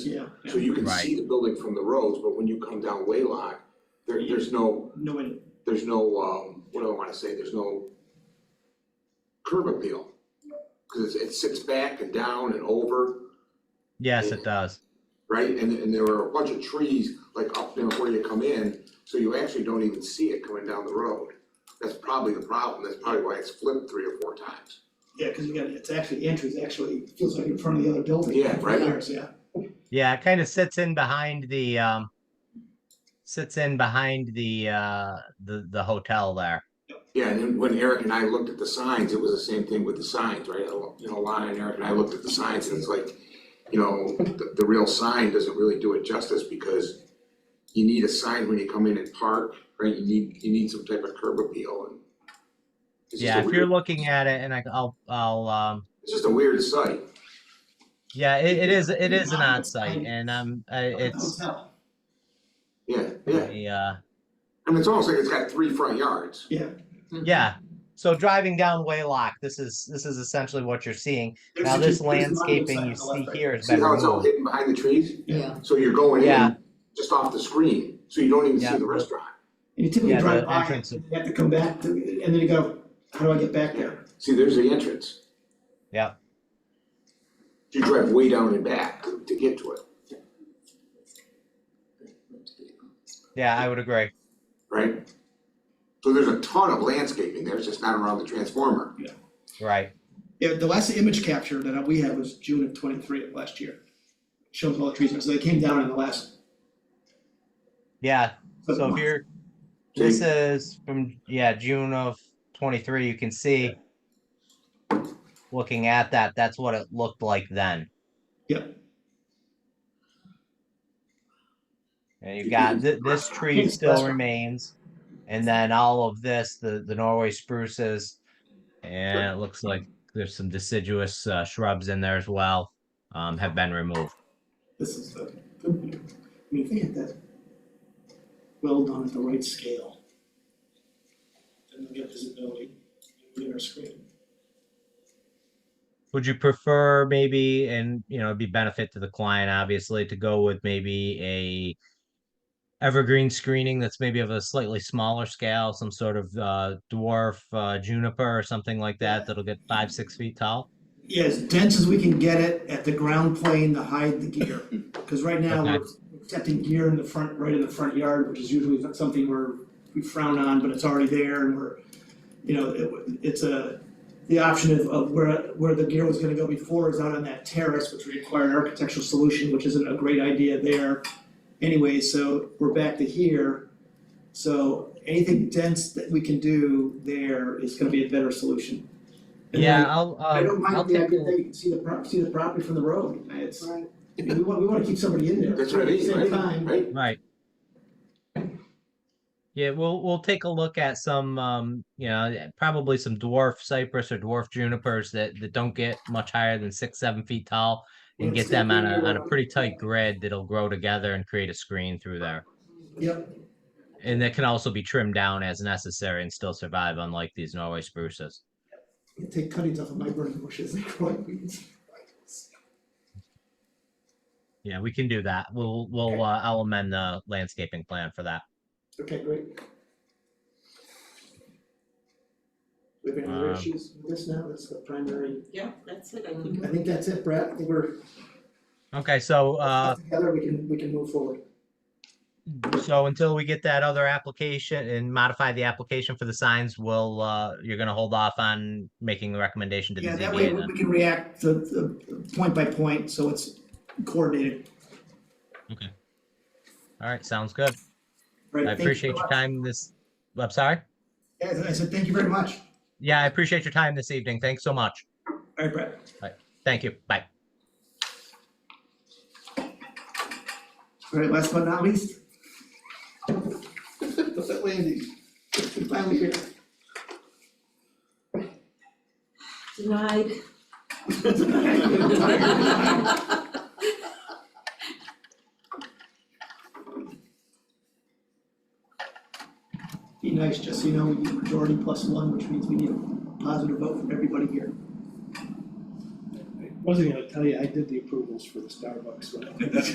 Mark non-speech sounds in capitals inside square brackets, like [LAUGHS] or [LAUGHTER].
Yeah, So you can see the building from the roads, but when you come down Waylock, there, there's no, no one, there's no, um, what do I wanna say, there's no curb appeal. Cause it sits back and down and over, Yes, it does. right? And, and there are a bunch of trees, like up there where you come in, so you actually don't even see it coming down the road. That's probably the problem, that's probably why it's flipped three or four times. yeah, because you got, it's actually, entries actually, it feels like in front of the other building. Yeah, right. Ours, Yeah, Yeah, it kind of sits in behind the um sits in behind the uh the the hotel there. Yeah, and then when Eric and I looked at the signs, it was the same thing with the signs, right? You know, Lon and Eric and I looked at the signs and it's like, you know, the, the real sign doesn't really do it justice because you need a sign when you come in and park, right? You need, you need some type of curb appeal and it's just Yeah, a if you're weird, looking at it and I I'll I'll um it's just a weird sight. yeah, it, it is it is an Yeah, on site I'm- and um uh, it's Hotel. Yeah, yeah. a, uh I mean, it's almost like it's got three front yards. yeah. yeah. So driving down Waylock, this is this is essentially what you're seeing. There's Now a- this there's a monument landscaping sign you on the see left, here is See been how it's all removed. hidden behind the trees? Yeah, So you're going Yeah. in just off the screen, so you don't even Yeah. see the restaurant. and you typically Yeah, drive the by, entrance. it, you have to come back, to- and then you go, how do I get back there? See, there's the entrance. Yeah. You drive way down and back to to get to it, Yeah, I would agree. right? So there's a ton of landscaping there, it's just not around the transformer. Right. Yeah, the last image capture that we had was June of twenty-three of last year. Shows all the trees, so they came down in the last. Yeah. So if month. you're So This you- is from, yeah, June of twenty-three, you can see. Looking at that, that's what it looked like then. Yep. And you've got, thi- this tree Yes, still restaurant. remains, and then all of this, the, the Norway spruces. And it looks like there's some deciduous uh, shrubs in there as well, um, have been removed. This is the, I mean, if they had that well done at the right scale. Then we get visibility, we get our screen. Would you prefer maybe, and you know, it'd be benefit to the client, obviously, to go with maybe a evergreen screening that's maybe of a slightly smaller scale, some sort of uh, dwarf uh, juniper or something like that that'll get five, six feet tall? Yeah, as dense as we can get it at the ground plane to hide the gear, because right now we're accepting gear in the front, right in the front yard, which is usually not something we're, we frown on, but it's already there and we're, you know, it, it's a, the option of, of where, where the gear was gonna go before is out on that terrace, which required an architectural solution, which isn't a great idea there. Anyway, so we're back to here, so anything dense that we can do there is gonna be a better solution. And Yeah, I- I'll, I don't um, I'll mind the take a idea that look. you can see the prop, see the property from the road, it's, I mean, we want, we wanna keep somebody in there. That's what I mean, At the right? same time, Right? Right. Yeah, we'll, we'll take a look at some, um, you know, probably some dwarf cypress or dwarf junipers that, that don't get much higher than six, seven feet tall. and get them on a, on a pretty tight grid that'll grow together and create a screen through there. Yep, And that can also be trimmed down as necessary and still survive, unlike these Norway spruces. you take cuttings off of my burning bushes and growing weeds. Yeah, we can do that. We'll, we'll, uh, I'll amend the landscaping plan for that. Okay, great. We have any other Um, issues with this now, that's the primary, Yeah, that's it, I I think. think that's it, Brad, I think we're, Okay, so, uh, together, we can, we can move forward. so until we get that other application and modify the application for the signs, we'll, uh, you're gonna hold off on making the recommendation to the Yeah, that way ZBA we then? we can react to, to, point by point, so it's coordinated, All right, sounds good. right? I Thank you appreciate so your much. time this, I'm sorry? Yeah, I said, thank you very much, Yeah, I appreciate your time this evening. Thanks so much. all right, Brad. Thank you. Bye. All right, last but not least. Look at Landy, finally here. Denied. Be nice, just so you know, we need majority plus one, which means we need a positive vote from everybody here. [LAUGHS] I wasn't gonna tell you, I did the approvals for the Starbucks, but